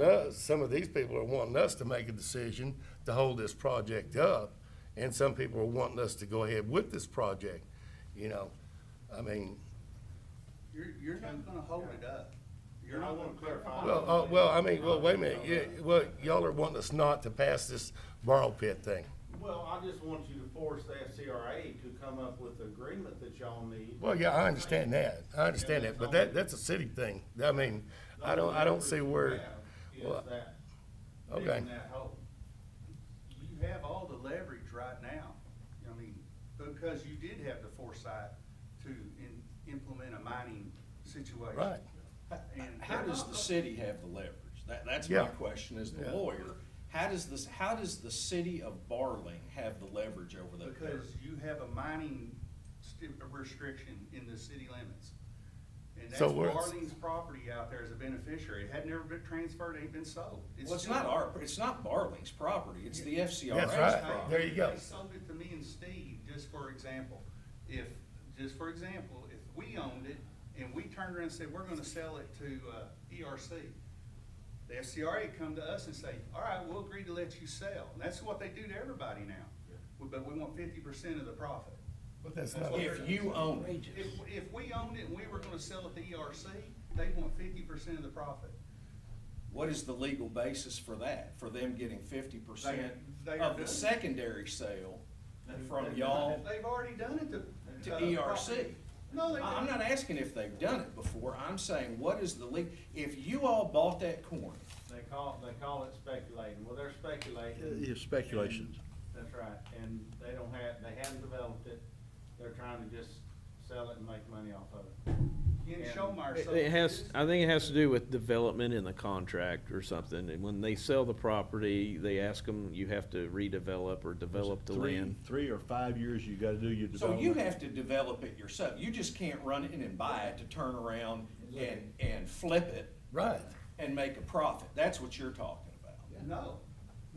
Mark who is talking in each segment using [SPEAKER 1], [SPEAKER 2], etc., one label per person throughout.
[SPEAKER 1] us, some of these people are wanting us to make a decision to hold this project up, and some people are wanting us to go ahead with this project, you know? I mean,
[SPEAKER 2] You're, you're not gonna hold it up. You're
[SPEAKER 3] And I
[SPEAKER 2] not
[SPEAKER 3] want
[SPEAKER 2] gonna
[SPEAKER 3] to clarify.
[SPEAKER 1] well, uh, well, I mean, well, wait a minute, yeah, well, y'all are wanting us not to pass this borrow pit thing.
[SPEAKER 3] Well, I just want you to force the FCRA to come up with the agreement that y'all need.
[SPEAKER 1] Well, yeah, I understand that, I understand that, but that, that's a city thing, I mean, I don't, I don't see where,
[SPEAKER 3] Is
[SPEAKER 1] well,
[SPEAKER 3] that,
[SPEAKER 1] okay.
[SPEAKER 3] digging that hole.
[SPEAKER 2] You have all the leverage right now, I mean, because you did have the foresight to in, implement a mining situation.
[SPEAKER 1] Right.
[SPEAKER 2] And
[SPEAKER 4] How does the city have the leverage? That, that's
[SPEAKER 1] Yeah.
[SPEAKER 4] my question as the lawyer. How does this, how does the city of Barling have the leverage over that? dirt?
[SPEAKER 2] Because you have a mining sti- restriction in the city limits. And that's
[SPEAKER 1] So we're-
[SPEAKER 2] Marlene's property out there as a beneficiary, it had never been transferred, it ain't been sold.
[SPEAKER 4] Well, it's
[SPEAKER 2] still-
[SPEAKER 4] not our, it's not Barling's property, it's the
[SPEAKER 1] That's
[SPEAKER 4] FCRA's
[SPEAKER 1] right.
[SPEAKER 4] property.
[SPEAKER 1] There you go.
[SPEAKER 2] They sold it to me and Steve, just for example. If, just for example, if we owned it and we turned around and said, we're gonna sell it to, uh, ERC, the FCRA would come to us and say, all right, we'll agree to let you sell. And that's what they do to everybody now. But we want fifty percent of the profit.
[SPEAKER 1] But that's not,
[SPEAKER 4] If you own it.
[SPEAKER 2] If, if we owned it and we were gonna sell it to ERC, they want fifty percent of the profit.
[SPEAKER 4] What is the legal basis for that, for them getting fifty percent
[SPEAKER 2] They- they are
[SPEAKER 4] of
[SPEAKER 2] doing
[SPEAKER 4] the
[SPEAKER 2] it.
[SPEAKER 4] secondary sale from y'all?
[SPEAKER 2] They've already done it to.
[SPEAKER 4] To
[SPEAKER 2] uh,
[SPEAKER 4] ERC.
[SPEAKER 2] No, they
[SPEAKER 4] I- I'm
[SPEAKER 2] didn't.
[SPEAKER 4] not asking if they've done it before, I'm saying, what is the le, if you all bought that corn,
[SPEAKER 3] They call, they call it speculating. Well, they're
[SPEAKER 4] Uh,
[SPEAKER 3] speculating.
[SPEAKER 5] It's speculations.
[SPEAKER 3] That's right, and they don't have, they haven't developed it. They're trying to just sell it and make money off of it.
[SPEAKER 2] Ken Schomeyer
[SPEAKER 6] It
[SPEAKER 2] sold
[SPEAKER 6] it has,
[SPEAKER 2] his.
[SPEAKER 6] I think it has to do with development in the contract or something, and when they sell the property, they ask them, you have to redevelop or develop the
[SPEAKER 5] Three-
[SPEAKER 6] land.
[SPEAKER 5] Three or five years, you gotta do your
[SPEAKER 4] So you
[SPEAKER 5] development.
[SPEAKER 4] have to develop it yourself. You just can't run it in and buy it to turn around and, and flip it
[SPEAKER 1] right,
[SPEAKER 4] and make a profit. That's what you're talking about.
[SPEAKER 2] No,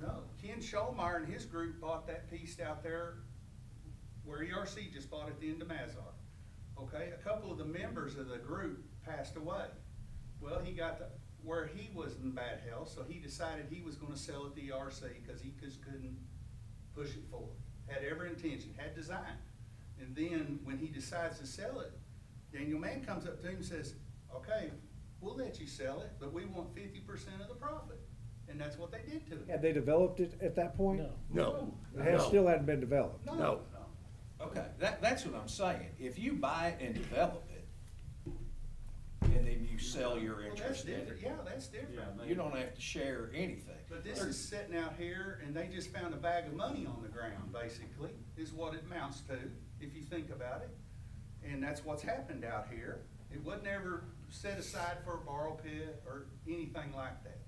[SPEAKER 2] no. Ken Scholmeyer and his group bought that piece out there where ERC just bought at the end of Mazar. Okay, a couple of the members of the group passed away. Well, he got to where he was in bad health, so he decided he was gonna sell it to E ERC because he just couldn't push it forward. Had every intention, had design. And then when he decides to sell it, Daniel Mann comes up to him and says, okay, we'll let you sell it, but we want fifty percent of the profit. And that's what they did to him.
[SPEAKER 7] Had they developed it at that point?
[SPEAKER 1] no,
[SPEAKER 7] It had-
[SPEAKER 1] no.
[SPEAKER 7] still hadn't been developed.
[SPEAKER 2] No,
[SPEAKER 1] No.
[SPEAKER 2] no.
[SPEAKER 4] Okay, that, that's what I'm saying. If you buy it and develop it, and then you sell your
[SPEAKER 2] Well, that's
[SPEAKER 4] interest in
[SPEAKER 2] different,
[SPEAKER 4] it,
[SPEAKER 2] yeah, that's different.
[SPEAKER 3] Yeah,
[SPEAKER 4] you don't have to share anything.
[SPEAKER 2] But this is sitting out here and they just found a bag of money on the ground, basically, is what it amounts to, if you think about it. And that's what's happened out here. It wasn't ever set aside for a borrow pit or anything like that.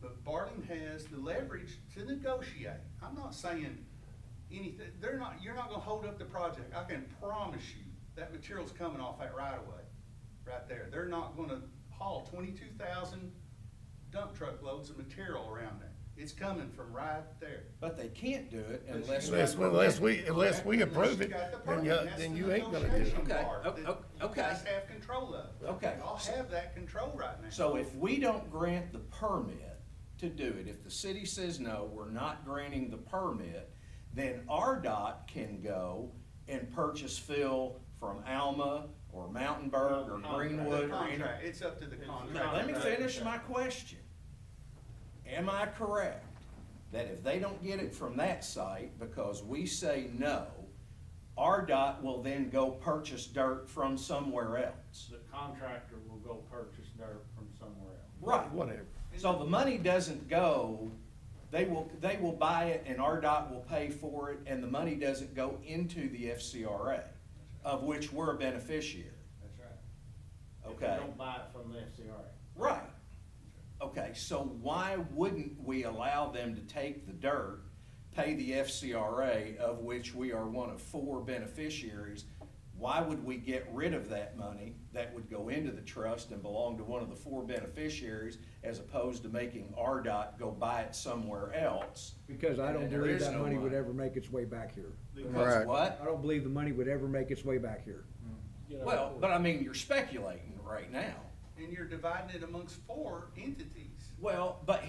[SPEAKER 2] But Barling has the leverage to negotiate. I'm not saying anything, they're not, you're not gonna hold up the project. I can promise you, that material's coming off that right away, right there. They're not gonna haul twenty-two thousand dump truck loads of material around there. It's coming from right there.
[SPEAKER 4] But they can't do it
[SPEAKER 2] But
[SPEAKER 4] unless.
[SPEAKER 2] you-
[SPEAKER 1] Unless, unless we, unless we
[SPEAKER 2] Unless
[SPEAKER 1] approve
[SPEAKER 2] you
[SPEAKER 1] it,
[SPEAKER 2] got the
[SPEAKER 1] then
[SPEAKER 2] permit,
[SPEAKER 1] you,
[SPEAKER 2] that's
[SPEAKER 1] then
[SPEAKER 2] the
[SPEAKER 1] you ain't gonna do it.
[SPEAKER 2] negotiation
[SPEAKER 4] Okay,
[SPEAKER 2] part
[SPEAKER 4] o-
[SPEAKER 2] that
[SPEAKER 4] o-
[SPEAKER 2] You guys
[SPEAKER 4] okay.
[SPEAKER 2] have control of.
[SPEAKER 4] Okay.
[SPEAKER 2] Y'all have that control right now.
[SPEAKER 4] So if we don't grant the permit to do it, if the city says no, we're not granting the permit, then RDOT can go and purchase fill from Alma or Mountainburg or
[SPEAKER 2] The
[SPEAKER 4] Greenwood or any.
[SPEAKER 2] contract, it's up to the
[SPEAKER 4] Now,
[SPEAKER 2] contract.
[SPEAKER 4] let me finish my question. Am I correct that if they don't get it from that site because we say no, RDOT will then go purchase dirt from somewhere else?
[SPEAKER 3] The contractor will go purchase dirt from somewhere else.
[SPEAKER 4] Right.
[SPEAKER 1] Whatever.
[SPEAKER 4] So the money doesn't go, they will, they will buy it and RDOT will pay for it, and the money doesn't go into the FCRA, of which we're a beneficiary,
[SPEAKER 2] That's right.
[SPEAKER 3] If they
[SPEAKER 4] okay?
[SPEAKER 3] don't buy it from the FCRA.
[SPEAKER 4] Right. Okay, so why wouldn't we allow them to take the dirt, pay the FCRA, of which we are one of four beneficiaries? Why would we get rid of that money that would go into the trust and belong to one of the four beneficiaries as opposed to making RDOT go buy it somewhere else?
[SPEAKER 7] Because I don't
[SPEAKER 4] And there
[SPEAKER 7] believe
[SPEAKER 4] is
[SPEAKER 7] that
[SPEAKER 4] no
[SPEAKER 7] money would ever make its way back here.
[SPEAKER 4] Because
[SPEAKER 7] I
[SPEAKER 4] what?
[SPEAKER 7] don't believe the money would ever make its way back here.
[SPEAKER 4] Well, but I mean, you're speculating right now.
[SPEAKER 2] And you're dividing it amongst four entities.
[SPEAKER 4] Well, but